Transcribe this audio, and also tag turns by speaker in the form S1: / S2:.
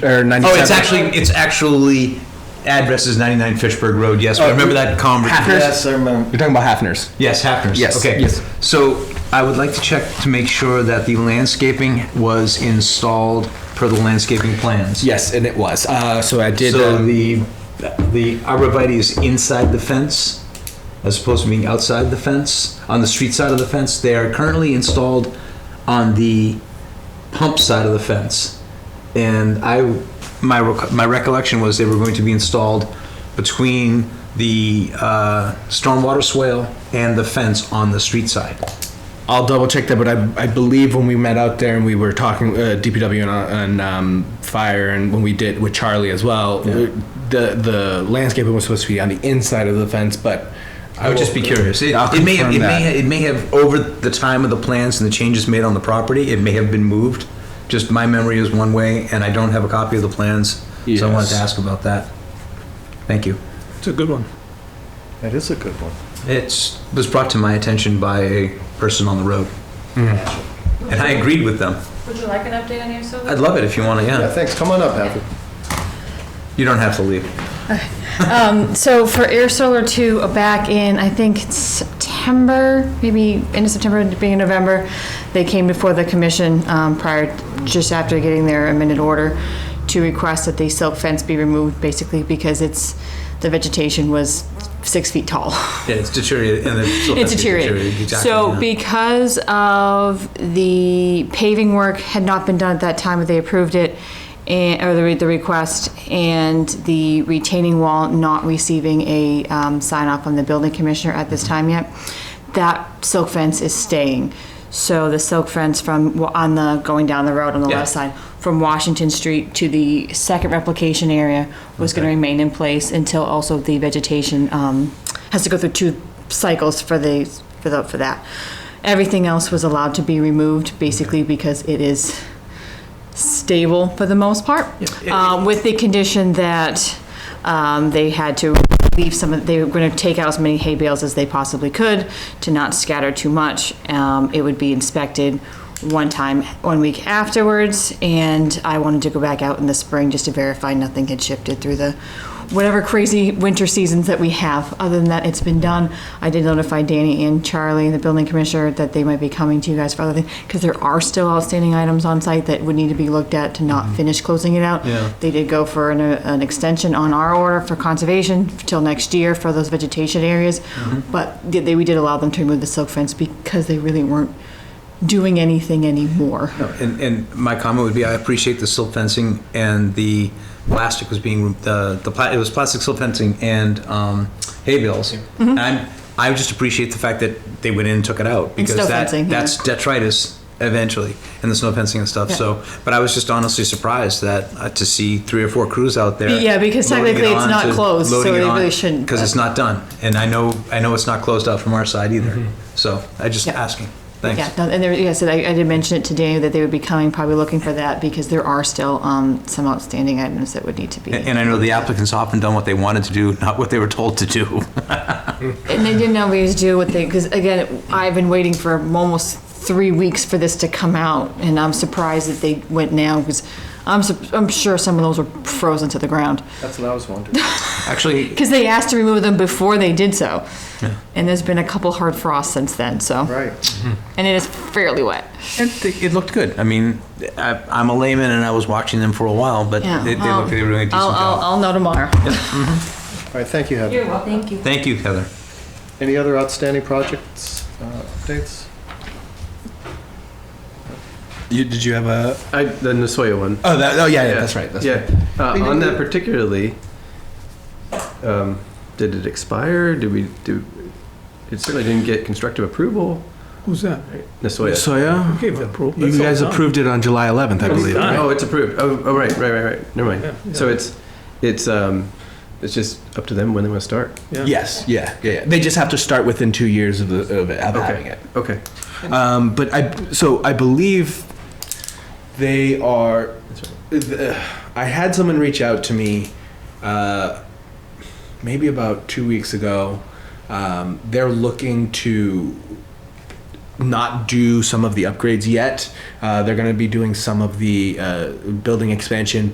S1: or 97.
S2: Oh, it's actually, it's actually, address is 99 Fishberg Road, yes, but I remember that conversation.
S1: Hackers?
S3: Yes, I remember.
S1: You're talking about Hafner's.
S2: Yes, Hafner's.
S1: Yes,
S2: Okay.
S1: yes.
S2: So I would like to check to make sure that the landscaping was installed per the landscaping plans.
S1: Yes, and it was. Uh, so I did.
S2: So
S1: um,
S2: the, the arborvitae is inside the fence as opposed to being outside the fence, on the street side of the fence. They are currently installed on the pump side of the fence. And I, my, rec- my recollection was they were going to be installed between the uh, stormwater swale and the fence on the street side.
S1: I'll double check that, but I, I believe when we met out there and we were talking uh, DPW and, uh, and um, fire, and when we did with Charlie as well, the the landscaping was supposed to be on the inside of the fence, but
S2: I would just be curious. It,
S1: I'll
S2: Oh, it may have, it
S1: confirm
S2: may,
S1: that.
S2: ha- it may have, over the time of the plans and the changes made on the property, it may have been moved. Just my memory is one way, and I don't have a copy of the plans, so I wanted to
S1: Yes.
S2: ask about that. Thank you.
S4: It's a good one.
S3: That is a good one.
S2: It's, was brought to my attention by a person on the road, and I agreed with them.
S5: Would you like an update on your solar?
S2: I'd love it if you want to,
S3: Yeah,
S2: yeah.
S3: thanks. Come on up, Patrick.
S2: You don't have to leave.
S5: Um, So for Air Solar 2, uh, back in, I think it's September, maybe end of September, beginning of November, they came before the commission um, prior, just after getting their amended order, to request that the silk fence be removed, basically because it's, the vegetation was six feet tall.
S2: Yeah, it's deteriorated, and it's.
S5: It's deteriorated.
S2: exactly,
S5: So
S2: yeah.
S5: because of the paving work had not been done at that time, they approved it, and, or the, re- the request, and the retaining wall not receiving a, um, sign off from the building commissioner at this time yet, that silk fence is staying. So the silk fence from, on the, going down the road on the
S2: Yeah.
S5: left side, from Washington Street to the second replication area was gonna
S2: Okay.
S5: remain in place until also the vegetation, um, has to go through two cycles for the, for the, for that. Everything else was allowed to be removed, basically because it is stable for the most part. Um, with the condition that, um, they had to leave some, of they were gonna take out as many hay bales as they possibly could to not scatter too much. Um, it would be inspected one time, one week afterwards, and I wanted to go back out in the spring just to verify nothing had shifted through the, whatever crazy winter seasons that we have. Other than that, it's been done. I did notify Danny and Charlie, the building commissioner, that they might be coming to you guys for other things, because there are still outstanding items on site that would need to be looked at to not finish closing it out.
S2: Yeah.
S5: They did go for an, uh, an extension on our order for conservation till next year for those vegetation areas.
S2: Mm-hmm.
S5: But did they, we did allow them to remove the silk fence because they really weren't doing anything anymore.
S2: No, And, and my comment would be, I appreciate the silt fencing and the plastic was being, uh, the, pla- it was plastic silt fencing and um, hay bales.
S5: Mm-hmm.
S2: And I'm- I just appreciate the fact that they went in and took it out. because
S5: snow
S2: that-
S5: fencing, yeah.
S2: That's detritus eventually, and the snow fencing and stuff,
S5: Yeah.
S2: so. But I was just honestly surprised that, uh, to see three or four crews out there.
S5: Yeah, because technically it's not closed, so they really shouldn't,
S2: Because it's
S5: but-
S2: not done. And I know, I know it's not closed out from our side either. So I just
S5: Yeah.
S2: asking. Thanks.
S5: Yeah, no, and there, yeah, so I, I did mention it to Danny that they would be coming, probably looking for that, because there are still, um, some outstanding items that would need to be.
S2: And and I know the applicants often done what they wanted to do, not what they were told to do.
S5: And they didn't always do what they, because again, I've been waiting for almost three weeks for this to come out, and I'm surprised that they went now, because I'm, sup- I'm sure some of those were frozen to the ground.
S3: That's what I was wondering.
S2: Actually,
S5: Because they asked to remove them before they did so. And there's been a couple hard frosts since then, so,
S3: Right.
S5: and it is fairly wet.
S2: it it looked good. I mean, I- I'm a layman and I was watching them for a while, but
S5: Yeah.
S2: they they looked, they were doing a decent
S5: I'll, I'll,
S2: job.
S5: I'll know tomorrow.
S3: All right, thank you, Heather.
S5: Thank you.
S2: Thank you, Heather.
S3: Any other outstanding projects, uh, updates?
S4: You, did you have a?
S6: I, the Nasoya one.
S4: Oh, that, oh yeah, yeah, that's right. That's
S6: yeah. Uh, on that particularly, um, did it expire? Did we do? It certainly didn't get constructive approval.
S4: Who's that?
S6: Nasoya.
S4: So yeah, gave that proof.
S1: you guys approved it on July 11th, I believe.
S4: done.
S6: Oh, it's approved. Oh, oh, right, right, right, right. Never mind. So it's, it's, um, it's just up to them when they want to start.
S1: Yes, yeah, yeah, yeah. They just have to start within two years of, the, of, it, of having
S6: Okay.
S1: it.
S6: Okay.
S1: Um, but I, so I believe they are. the- I had someone reach out to me, uh, maybe about two weeks ago. Um, they're looking to not do some of the upgrades yet. Uh, they're going to be doing some of the uh, building expansion,